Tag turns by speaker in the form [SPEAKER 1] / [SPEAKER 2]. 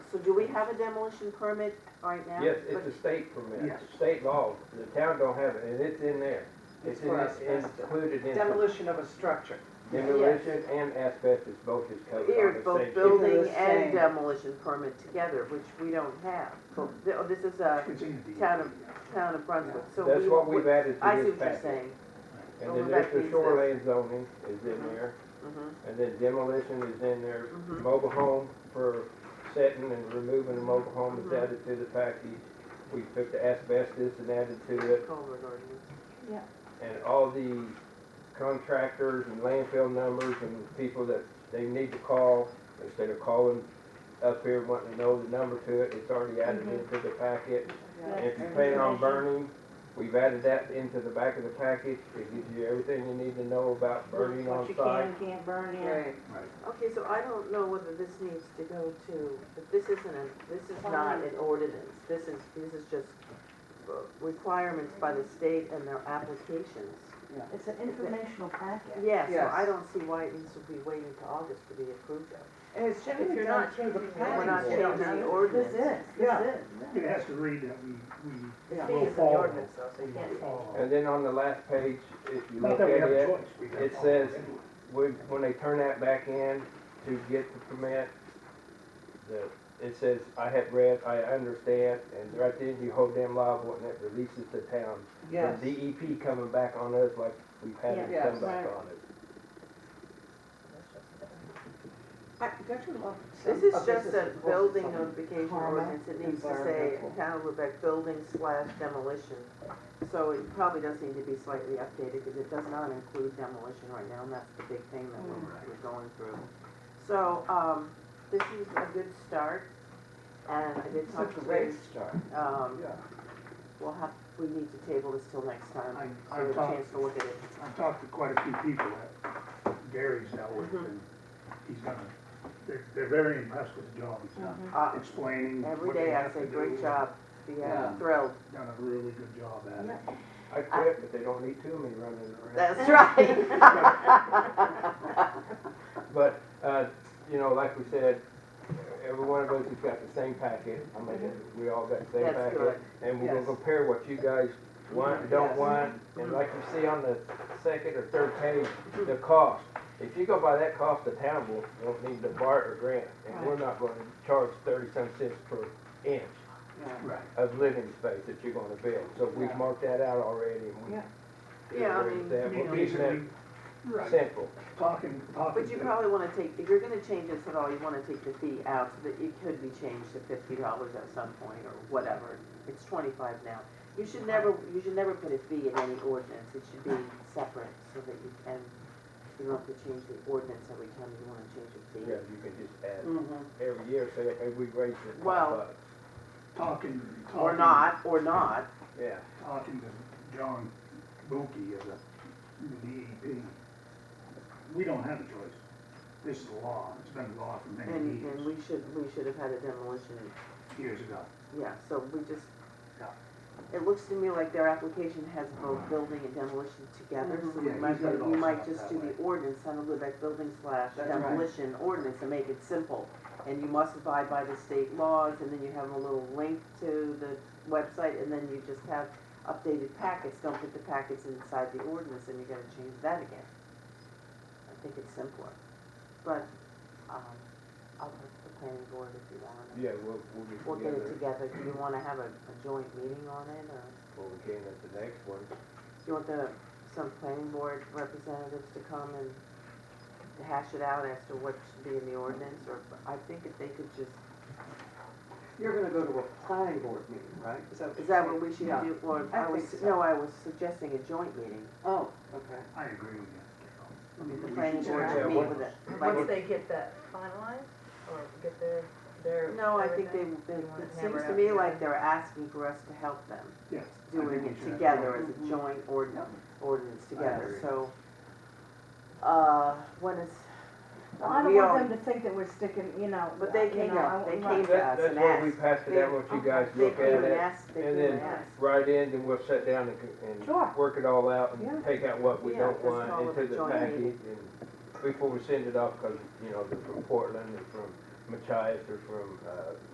[SPEAKER 1] So do we have a demolition permit right now?
[SPEAKER 2] Yes, it's a state permit,
[SPEAKER 3] Yes.
[SPEAKER 2] state law, the town don't have it, and it's in there. It's in,
[SPEAKER 3] for us,
[SPEAKER 2] it's
[SPEAKER 3] yes.
[SPEAKER 2] included in
[SPEAKER 3] Demolition of a structure.
[SPEAKER 2] demolition and asbestos, both is covered under
[SPEAKER 1] Here,
[SPEAKER 2] state.
[SPEAKER 1] both
[SPEAKER 2] law.
[SPEAKER 1] building and
[SPEAKER 3] same.
[SPEAKER 1] demolition permit together, which we don't have. Th- oh, This is a
[SPEAKER 4] It's in the
[SPEAKER 1] town of, town of Brunswick, so we.
[SPEAKER 2] That's what we've added
[SPEAKER 1] I
[SPEAKER 2] to
[SPEAKER 1] see
[SPEAKER 2] this
[SPEAKER 1] what you're
[SPEAKER 2] package.
[SPEAKER 1] saying.
[SPEAKER 2] And
[SPEAKER 1] Well, that
[SPEAKER 2] then there's the
[SPEAKER 1] means that-
[SPEAKER 2] shoreline zoning is in
[SPEAKER 1] Mhm.
[SPEAKER 2] there,
[SPEAKER 1] Mhm.
[SPEAKER 2] and then demolition is in there.
[SPEAKER 1] Mhm.
[SPEAKER 2] Mobile home for setting and removing a mobile home is
[SPEAKER 1] Mhm.
[SPEAKER 2] added to the package. We took the asbestos and added to it,
[SPEAKER 1] Culvert ordinance.
[SPEAKER 2] and all the contractors and landfill numbers and people that they need to call, instead of calling up here wanting to know the number to it, it's already added
[SPEAKER 5] Mm-hmm.
[SPEAKER 2] into the packet. And if you plan on burning, we've added that into the back of the package. It gives you everything you need to know about burning
[SPEAKER 5] What
[SPEAKER 2] on
[SPEAKER 5] you can
[SPEAKER 2] site.
[SPEAKER 5] and can't burn in.
[SPEAKER 1] Right.
[SPEAKER 4] Right.
[SPEAKER 1] Okay, so I don't know whether this needs to go to, but this isn't, a. this is not an ordinance. This is, this is just uh, requirements by the state and their applications.
[SPEAKER 5] It's an informational packet.
[SPEAKER 1] Yeah, so I
[SPEAKER 3] Yes.
[SPEAKER 1] don't see why this would be waiting to August to be approved of.
[SPEAKER 3] And it's
[SPEAKER 1] If
[SPEAKER 3] generally
[SPEAKER 1] you're
[SPEAKER 3] done
[SPEAKER 1] not
[SPEAKER 3] through the
[SPEAKER 1] changing-
[SPEAKER 3] planning
[SPEAKER 1] we're not
[SPEAKER 3] board.
[SPEAKER 1] changing the ordinance.
[SPEAKER 5] This is,
[SPEAKER 3] Yeah.
[SPEAKER 5] this
[SPEAKER 4] It
[SPEAKER 5] is.
[SPEAKER 4] has to read that we, we
[SPEAKER 1] The
[SPEAKER 3] Yeah.
[SPEAKER 1] state
[SPEAKER 4] will
[SPEAKER 1] is an
[SPEAKER 4] follow.
[SPEAKER 1] ordinance though, so
[SPEAKER 4] We
[SPEAKER 1] you can't
[SPEAKER 4] will follow.
[SPEAKER 2] And then on the last page, if you
[SPEAKER 4] Not
[SPEAKER 2] look
[SPEAKER 4] that
[SPEAKER 2] at
[SPEAKER 4] we have a
[SPEAKER 2] it,
[SPEAKER 4] choice. we gotta
[SPEAKER 2] it
[SPEAKER 4] follow
[SPEAKER 2] says-
[SPEAKER 4] anyway.
[SPEAKER 2] When, when they turn that back in to get the permit, the, it says, I have read, I understand, and right then you hold them liable and it releases the town.
[SPEAKER 3] Yes.
[SPEAKER 2] The DEP coming back on us like we've had it
[SPEAKER 3] Yeah.
[SPEAKER 2] come back
[SPEAKER 5] Right.
[SPEAKER 2] on it.
[SPEAKER 3] I- Don't you love some
[SPEAKER 1] This is
[SPEAKER 3] of
[SPEAKER 1] just a
[SPEAKER 3] is-
[SPEAKER 1] building notification
[SPEAKER 3] Karma,
[SPEAKER 1] ordinance, it needs to say
[SPEAKER 3] environmental.
[SPEAKER 1] town of Lubec building slash demolition. So it probably does need to be slightly updated, because it does not include demolition right now, and that's the big thing that we're, we're going through. So, um, this is a good start, and I did
[SPEAKER 3] It's a
[SPEAKER 1] talk to
[SPEAKER 3] great
[SPEAKER 1] Rich,
[SPEAKER 3] start.
[SPEAKER 1] um,
[SPEAKER 4] Yeah,
[SPEAKER 1] we'll have, we need to table this till next
[SPEAKER 4] I,
[SPEAKER 1] time, so we
[SPEAKER 4] I've
[SPEAKER 1] have a
[SPEAKER 4] talked,
[SPEAKER 1] chance to look at it.
[SPEAKER 4] I've talked to quite a few people that Gary's dealt with
[SPEAKER 1] Mhm.
[SPEAKER 4] and he's done, a- they're, they're very impressed with the job he's done.
[SPEAKER 1] Uh,
[SPEAKER 4] Explaining
[SPEAKER 1] every
[SPEAKER 4] what they
[SPEAKER 1] day I
[SPEAKER 4] have
[SPEAKER 1] say,
[SPEAKER 4] to do,
[SPEAKER 1] great job, yeah,
[SPEAKER 3] Yeah.
[SPEAKER 1] thrilled.
[SPEAKER 4] Done a really good job at it.
[SPEAKER 2] I quit, but they don't need too many running around.
[SPEAKER 1] That's right.
[SPEAKER 2] But, uh, you know, like we said, every one of us has got the same packet. I mean, we all got the same
[SPEAKER 1] Mm-hmm. That's
[SPEAKER 2] packet.
[SPEAKER 1] good.
[SPEAKER 2] And we're gonna
[SPEAKER 3] Yes.
[SPEAKER 2] compare what you guys want, don't
[SPEAKER 3] Yes.
[SPEAKER 2] want,
[SPEAKER 1] Mm-hmm.
[SPEAKER 2] and like you see on the second or third page, the cost. If you go by that cost, the town will, won't need to bar or grant, and we're not gonna charge thirty-some cents per inch
[SPEAKER 3] Yeah.
[SPEAKER 4] Right.
[SPEAKER 2] of living space that you're gonna build. So we've
[SPEAKER 3] Yeah.
[SPEAKER 2] marked that out already, and we.
[SPEAKER 3] Yeah.
[SPEAKER 1] Yeah, I
[SPEAKER 2] agree
[SPEAKER 1] mean-
[SPEAKER 2] with that.
[SPEAKER 4] I mean,
[SPEAKER 2] We're keeping
[SPEAKER 4] basically,
[SPEAKER 2] that
[SPEAKER 4] right,
[SPEAKER 2] simple.
[SPEAKER 4] talking, talking.
[SPEAKER 1] But you
[SPEAKER 4] to-
[SPEAKER 1] probably wanna take, if you're gonna change this at all, you wanna take the fee out so that it could be changed to fifty dollars at some point or whatever. It's twenty-five now. You should never, you should never put a fee in any ordinance. It should be separate so that you can, you don't have to change the ordinance every time you wanna change a
[SPEAKER 2] Yeah,
[SPEAKER 1] fee.
[SPEAKER 2] you can just add
[SPEAKER 1] Mhm.
[SPEAKER 2] every year, say, hey, we raised it five
[SPEAKER 1] Well-
[SPEAKER 2] bucks.
[SPEAKER 4] Talking, talking.
[SPEAKER 1] Or not, or not.
[SPEAKER 2] Yeah,
[SPEAKER 4] talking to John Buki of the the DEP, we don't have a choice. This is the law, it's been the law for many
[SPEAKER 1] And, and
[SPEAKER 4] years,
[SPEAKER 1] we should, we should have had a demolition
[SPEAKER 4] years ago.
[SPEAKER 1] Yeah, so we just,
[SPEAKER 4] Yeah. Uh-huh.
[SPEAKER 1] it looks to me like their application has both building and demolition together, so we
[SPEAKER 4] Mm-hmm. Yeah,
[SPEAKER 1] might,
[SPEAKER 4] he's got it all
[SPEAKER 1] we
[SPEAKER 4] set
[SPEAKER 1] might
[SPEAKER 4] up
[SPEAKER 1] just
[SPEAKER 4] that
[SPEAKER 1] do the
[SPEAKER 4] way.
[SPEAKER 1] ordinance, on the Lubec building slash
[SPEAKER 3] That's right.
[SPEAKER 1] demolition ordinance and make it simple. And you must abide by the state laws, and then you have a little link to the website, and then you just have updated packets, don't put the packets inside the ordinance, and you gotta change that again. I think it's simpler, but, um, I'll put the planning board if you want.
[SPEAKER 2] yeah, we'll, we'll get
[SPEAKER 1] We'll get it
[SPEAKER 2] together,
[SPEAKER 1] together, do you wanna have a, a joint meeting on it, or
[SPEAKER 2] well, we can at the next one.
[SPEAKER 1] do you want the, some planning board representatives to come and hash it out as to what should be in the ordinance, or, I think if they could just,
[SPEAKER 3] You're gonna go to a planning board meeting, right?
[SPEAKER 1] is that what we should
[SPEAKER 3] Yeah.
[SPEAKER 1] do, or,
[SPEAKER 3] I
[SPEAKER 1] I was,
[SPEAKER 3] think so.
[SPEAKER 1] no, I was suggesting a joint meeting,
[SPEAKER 3] Oh, okay.
[SPEAKER 4] I agree with you.
[SPEAKER 1] I mean, the
[SPEAKER 4] We
[SPEAKER 1] planning
[SPEAKER 4] should
[SPEAKER 1] board
[SPEAKER 4] do
[SPEAKER 1] should
[SPEAKER 2] that.
[SPEAKER 1] meet
[SPEAKER 2] What-
[SPEAKER 1] with it.
[SPEAKER 6] Once they get that finalized, or get their, their.
[SPEAKER 1] No, I think they, they,
[SPEAKER 6] You wanna
[SPEAKER 1] it
[SPEAKER 6] hammer
[SPEAKER 1] seems
[SPEAKER 6] it
[SPEAKER 1] to
[SPEAKER 6] out
[SPEAKER 1] me
[SPEAKER 6] together?
[SPEAKER 1] like they're asking for us to help them,
[SPEAKER 4] Yes. I think
[SPEAKER 1] doing
[SPEAKER 4] we
[SPEAKER 1] it
[SPEAKER 4] should have-
[SPEAKER 1] together as a
[SPEAKER 3] Mhm.
[SPEAKER 1] joint ordinance, ordinance together,
[SPEAKER 4] agree.
[SPEAKER 1] so. Uh, when is,
[SPEAKER 5] Well, I don't
[SPEAKER 1] we all-
[SPEAKER 5] want them to think that we're sticking, you know.
[SPEAKER 1] But they
[SPEAKER 5] you
[SPEAKER 1] came
[SPEAKER 5] know, I
[SPEAKER 1] out, they
[SPEAKER 5] want-
[SPEAKER 1] came
[SPEAKER 2] That,
[SPEAKER 1] out
[SPEAKER 2] that's
[SPEAKER 1] and
[SPEAKER 2] where we
[SPEAKER 1] asked.
[SPEAKER 2] passed it out, what you guys
[SPEAKER 1] oh, They
[SPEAKER 2] look
[SPEAKER 1] came
[SPEAKER 2] at
[SPEAKER 1] and
[SPEAKER 2] it,
[SPEAKER 1] asked, they
[SPEAKER 2] and
[SPEAKER 1] came
[SPEAKER 2] then-
[SPEAKER 1] and asked.
[SPEAKER 2] right in, then we'll sit down and, c-
[SPEAKER 5] Sure.
[SPEAKER 2] and work it all out
[SPEAKER 5] Yeah.
[SPEAKER 2] and take out what we
[SPEAKER 1] Yeah,
[SPEAKER 2] don't
[SPEAKER 1] let's call
[SPEAKER 2] want
[SPEAKER 1] it a
[SPEAKER 2] into the
[SPEAKER 1] joint
[SPEAKER 2] package.
[SPEAKER 1] meeting.
[SPEAKER 2] and Before we send it off, because, you know, they're from Portland, they're from Machias, they're from, uh,